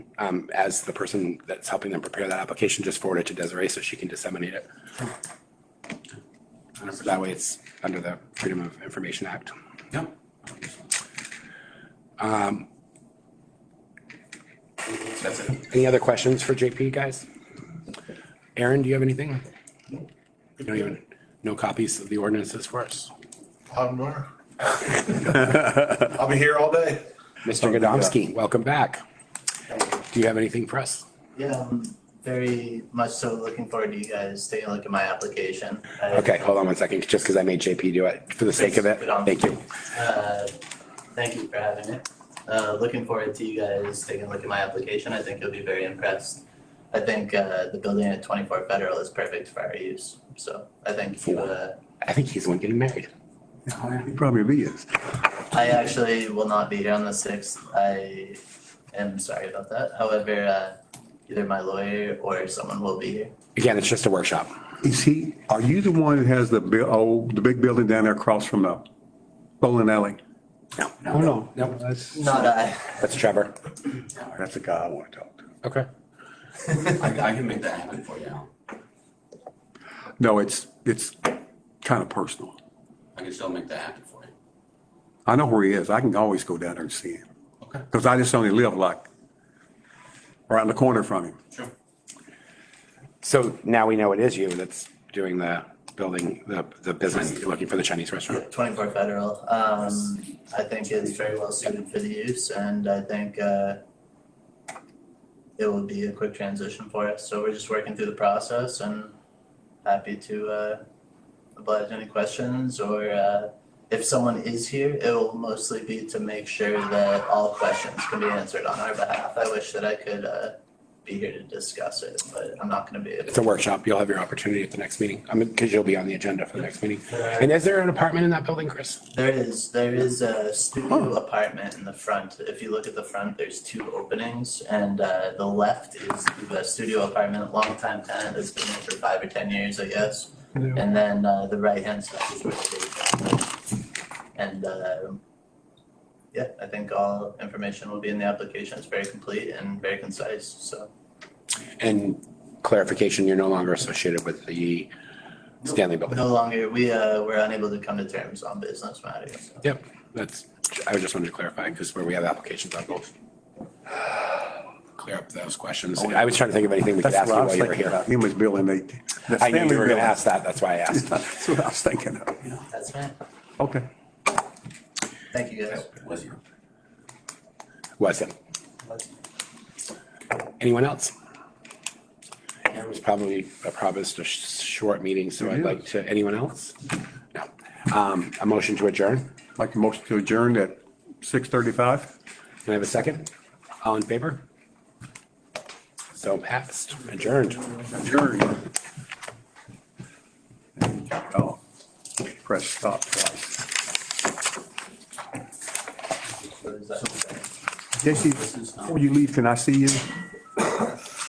um, as the person that's helping them prepare that application, just forward it to Desiree so she can disseminate it. And That way it's under the Freedom of Information Act. Yep. Um, That's it. Any other questions for JP, guys? Aaron, do you have anything? You don't even, no copies of the ordinances for us? Hot and warm. I'll be here all day. Mr. Godomsky, Oh, welcome back. Do you have anything for us? Yeah, I'm very much so looking forward to you guys taking a look at my application. I- Okay, hold on one second, just because I made JP do it for the sake of it. Thank you. Uh, Thank you for having it. Uh, Looking forward to you guys taking a look at my application. I think you'll be very impressed. I think uh, the building at 24 Federal is perfect for our use, so I think you, uh, I think he's the one getting married. Yeah. It probably is. I actually will not be here on the 6th. I am sorry about that. However, uh, either my lawyer or someone will be here. Again, it's just a workshop. Is he, are you the one that has the, bu- oh, the big building down there across from the bowling alley? No, Oh, no. No. That's, Not I. that's Trevor. that's the guy I want to talk to. Okay. I, I can make that happen for you. Al. No, it's, it's kind of personal. I can still make that happen for you. I know where he is. I can always go down there and see him. Okay. Because I just only live like right in the corner from him. Sure. So now we know it is you that's doing the building, the, the business, looking for the Chinese restaurant. 24 Federal, um, I think is very well suited for the use and I think, uh, it will be a quick transition for us, so we're just working through the process and happy to, uh, oblige any questions or, uh, if someone is here, it will mostly be to make sure that all questions can be answered on our behalf. I wish that I could, uh, be here to discuss it, but I'm not gonna be able It's a workshop. You'll have your opportunity at the next meeting. I mean, because you'll be on the agenda for the next meeting. And is there an apartment in that building, Chris? There is, there is a studio apartment in the front. If you look at the front, there's two openings and uh the left is the studio apartment, longtime tenant that's been there for five or ten years, I guess. And then uh the right hand side is where the day job. And uh yeah, I think all information will be in the application. It's very complete and very concise, so. And clarification, you're no longer associated with the Stanley building. No longer, we uh were unable to come to terms on business matters, so. Yep, that's, I just wanted to clarify because where we have applications on both. Clear up those questions. I was trying to think of anything we could Oh, ask That's you what I while was you were thinking here. about. Him was building eight. I knew you were going to ask that. That's why I asked. That's what I was thinking of. yeah. That's right. Okay. Thank you guys. Was you? Was it? Anyone else? It was probably, I promised a sh- short meeting, so I'd like to, anyone else? No. Um, a motion to adjourn. Like a motion to adjourn at 6:35? Can I have a second? All in favor? So passed, adjourned. Adjourn. Oh, Press stop twice. What is that? Jesse, before you leave, can I see you?